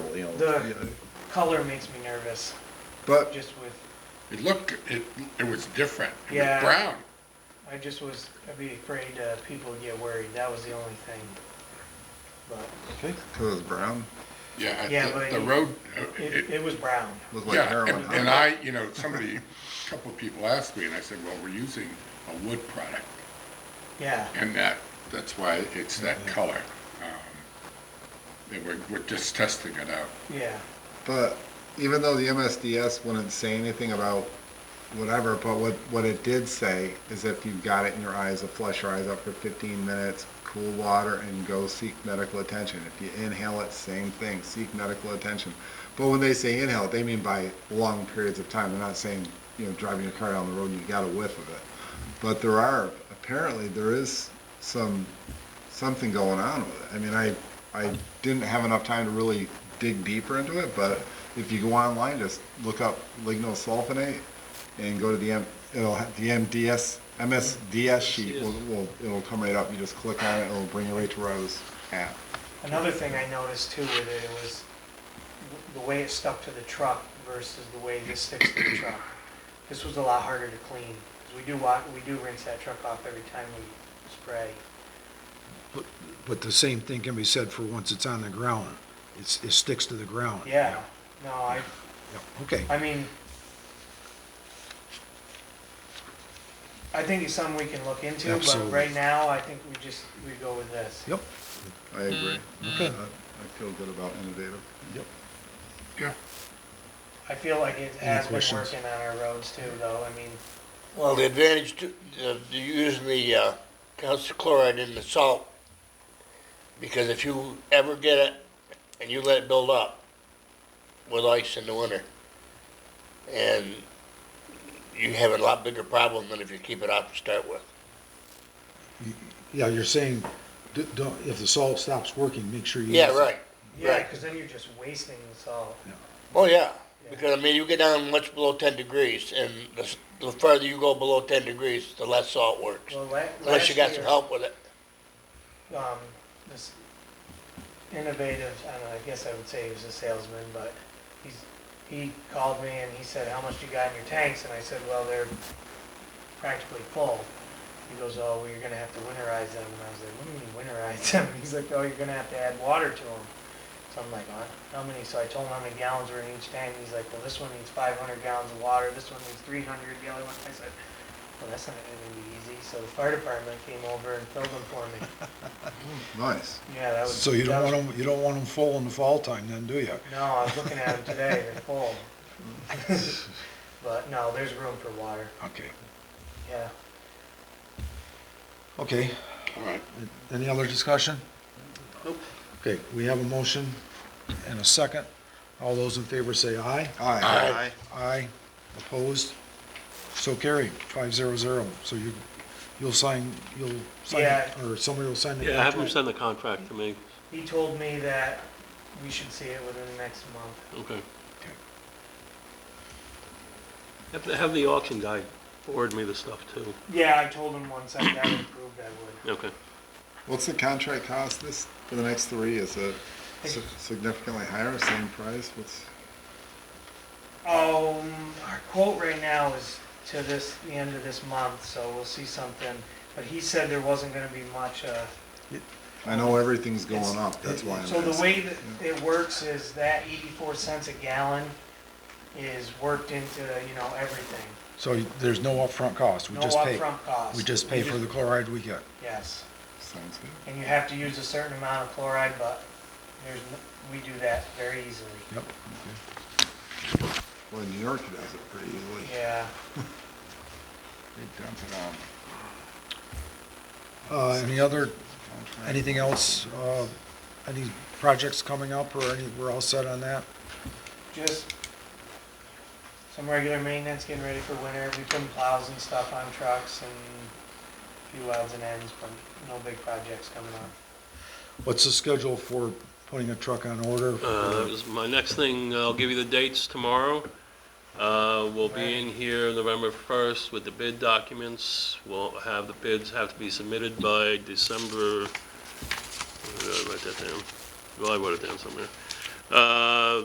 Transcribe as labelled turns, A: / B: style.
A: field.
B: The
C: Yeah,
B: color makes me nervous,
C: But
B: just with,
C: it looked, it, it was different. It
B: Yeah.
C: was brown.
B: I just was, I'd be afraid uh, people would get worried, that was the only thing. But
D: Okay.
A: It was brown,
C: Yeah,
B: Yeah,
C: the-
B: but
C: the
B: it-
C: road, uh,
B: it,
C: it,
B: it was brown,
A: looked like
C: yeah,
A: heroin.
C: and- and I, you know, somebody, a couple of people asked me, and I said, well, we're using a wood product,
B: yeah.
C: and that, that's why it's
A: Mm-hmm.
C: that color. Um, They were, we're just testing it out.
B: Yeah,
A: But even though the MSDS wouldn't say anything about whatever, but what, what it did say is if you've got it in your eyes, to flush your eyes out for fifteen minutes, cool water, and go seek medical attention. If you inhale it, same thing, seek medical attention. But when they say inhale, they mean by long periods of time. They're not saying, you know, driving your car down the road and you got a whiff of it. But there are, apparently, there is some, something going on with it. I mean, I, I didn't have enough time to really dig deeper into it, but if you go online, just look up lignosulfonate and go to the M, it'll, ha- the MDS, MSDS sheet will, will, it'll come right up. You just click on it, it'll bring you right to where I was at.
B: another thing I noticed too with it, it was w- the way it stuck to the truck versus the way this sticks to the truck. This was a lot harder to clean, 'cause we do wa, we do rinse that truck off every time we spray.
E: But the same thing can be said for once it's on the ground. It's, it sticks to the ground.
B: Yeah, no, I,
E: Yeah, Okay.
B: I mean, I think it's something we can look into, but
E: Absolutely.
B: right now, I think we just, we go with this.
E: Yep.
A: I agree.
E: Okay.
A: I I feel good about innovative.
C: Yeah.
B: I feel like it has been
E: questions?
B: working on our roads too, though, I mean,
F: Well, the advantage to, of using the uh, calcium chloride in the salt, because if you ever get it and you let it build up with ice in the winter, and you have a lot bigger problem than if you keep it out to start with.
E: Yeah, you're saying, d- don't, if the salt stops working, make sure you.
F: Yeah, right.
B: yeah,
F: Right.
B: because then you're just wasting the salt.
F: Oh, yeah. Because, I mean, you get down much below 10 degrees, and the, s- the further you go below 10 degrees, the less salt works.
B: Well, la-
F: Unless you
B: last
F: got
B: year,
F: some help with it.
B: Um, this innovative, I don't know, I guess I would say he was a salesman, but he's, he called me and he said, how much you got in your tanks? And I said, well, they're practically full. He goes, oh, well, you're gonna have to winterize them. And I was like, what do you mean winterize them? He's like, oh, you're gonna have to add water to them. So I'm like, "Huh? how many? So I told him how many gallons were in each tank. He's like, well, this one needs 500 gallons of water, this one needs 300, the other one. I said, well, that's not gonna be easy. So the fire department came over and filled them for me.
A: Nice.
B: Yeah, that was.
E: So you
B: that
E: don't
B: was-
E: want them, you don't want them full in the fall time then, do you?
B: No, I was looking at them today, they're full. But no, there's room for water,
E: Okay.
B: yeah.
E: Okay.
C: All right.
E: Any other discussion?
D: Nope.
E: Okay, we have a motion and a second. All those in favor say aye.
A: Aye.
D: Aye.
E: Aye. Opposed? So carried, five zero zero. So you, you'll sign, you'll sign,
B: Yeah.
E: or somebody will sign the
D: Yeah, have them
E: contract.
D: send the contract to me.
B: He told me that we should see it within the next month.
D: Okay. Have, the- have the auction guy forward me the stuff too.
B: Yeah, I told him once I got it approved, I would.
D: Okay.
A: What's the contract cost this, for the next three? Is it si- significantly higher, same price? What's,
B: Um, our quote right now is to this, the end of this month, so we'll see something. But he said there wasn't gonna be much, uh,
A: I know everything's going
B: It's-
A: up, that's why I'm
B: So the
A: asking.
B: way that it works is that eighty-four cents a gallon is worked into, you know, everything.
E: So you- there's no upfront cost, we
B: No
E: just pay.
B: upfront cost.
E: We just pay for the chloride we get.
B: Yes,
A: Sounds good.
B: and you have to use a certain amount of chloride, but there's, n- we do that very easily.
E: Yep.
A: Well, New York does it pretty easily.
B: Yeah,
A: They dump it on
E: Uh, any other,
A: contract.
E: anything else, uh, any projects coming up or any, we're all set on that?
B: just some regular maintenance, getting ready for winter. We put plows and stuff on trucks and a few odds and ends, but no big projects coming up.
E: What's the schedule for putting a truck on order?
D: Uh, that was my next thing, I'll give you the dates tomorrow. Uh, we'll be in here November first with the bid documents. We'll have the bids have to be submitted by December, where did I write that down? Well, I wrote it down somewhere. Uh,